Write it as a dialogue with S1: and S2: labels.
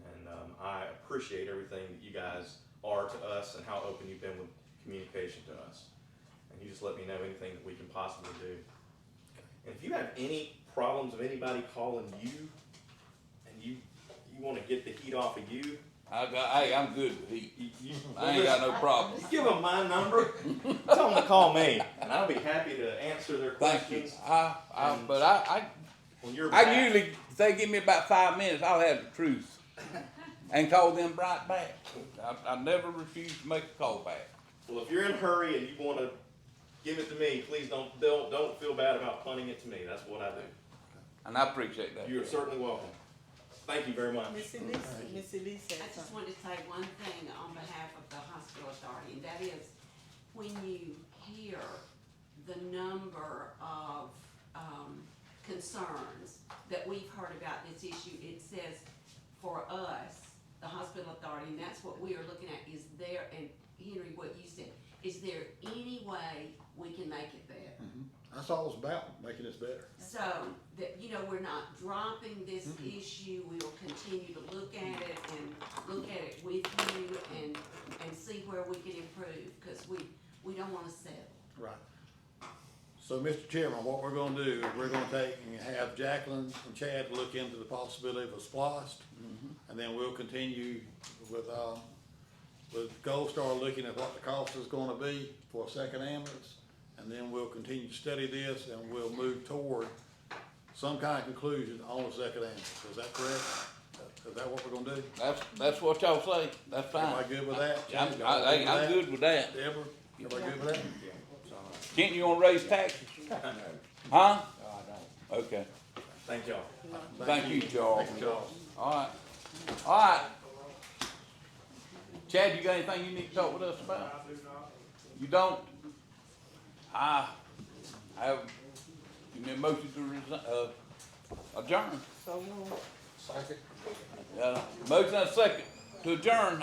S1: um, appreciate everything that you guys are to us and how open you've been with communication to us. And you just let me know anything that we can possibly do. And if you have any problems of anybody calling you and you, you wanna get the heat off of you,
S2: I got, hey, I'm good with heat.
S1: you, you.
S2: I ain't got no problem.
S1: You give them my number, tell them to call me, and I'll be happy to answer their
S2: Thank you.
S1: questions
S2: I, I, but I,
S1: on your
S2: I, I
S1: behalf.
S2: usually, if they give me about five minutes, I'll have the truth. And call them right back. I, I never refuse to make a call back.
S1: Well, if you're in a hurry and you want to give it to me, please don't don't don't feel bad about punting it to me. That's what I do.
S2: And I appreciate that.
S1: You're certainly welcome. Thank you very much.
S3: Miss Elise, Miss Elise said
S4: I just
S3: something.
S4: wanted to say one thing on behalf of the hospital authority, and that is, when you hear the number of, um, concerns that we've heard about this issue, it says, for us, the hospital authority, and that's what we are looking at, is there, and Henry, what you said, is there any way we can make it better?
S5: That's all it's about, making us better.
S4: So, that, you know, we're not dropping this issue, we will continue to look at it and look at it with you and, and see where we can improve, cause we, we don't wanna settle.
S5: Right. So, Mr. Chairman, what we're gonna do is we're gonna take and have Jacqueline and Chad look into the possibility of a splost. And then we'll continue with, uh, with Gold Star looking at what the cost is gonna be for a second ambulance. And then we'll continue to study this and we'll move toward some kind of conclusion on the second ambulance. Is that correct? Is that what we're gonna do?
S2: That's, that's what y'all say. That's
S5: Am I
S2: fine.
S5: good with that?
S2: I'm,
S5: Chad, y'all
S2: I,
S5: with
S2: hey, I'm
S5: that?
S2: good with that.
S5: Deborah, everybody good with that?
S2: Kenton, you wanna raise taxes? Huh? Okay.
S1: Thank y'all.
S2: Thank you, Charles.
S5: Thank you, Charles.
S2: Alright, alright. Chad, you got anything you need to talk with us about? You don't? I, I have, you need a motion to resi- uh, adjourn.
S3: So moved.
S2: Uh, motion and second to adjourn.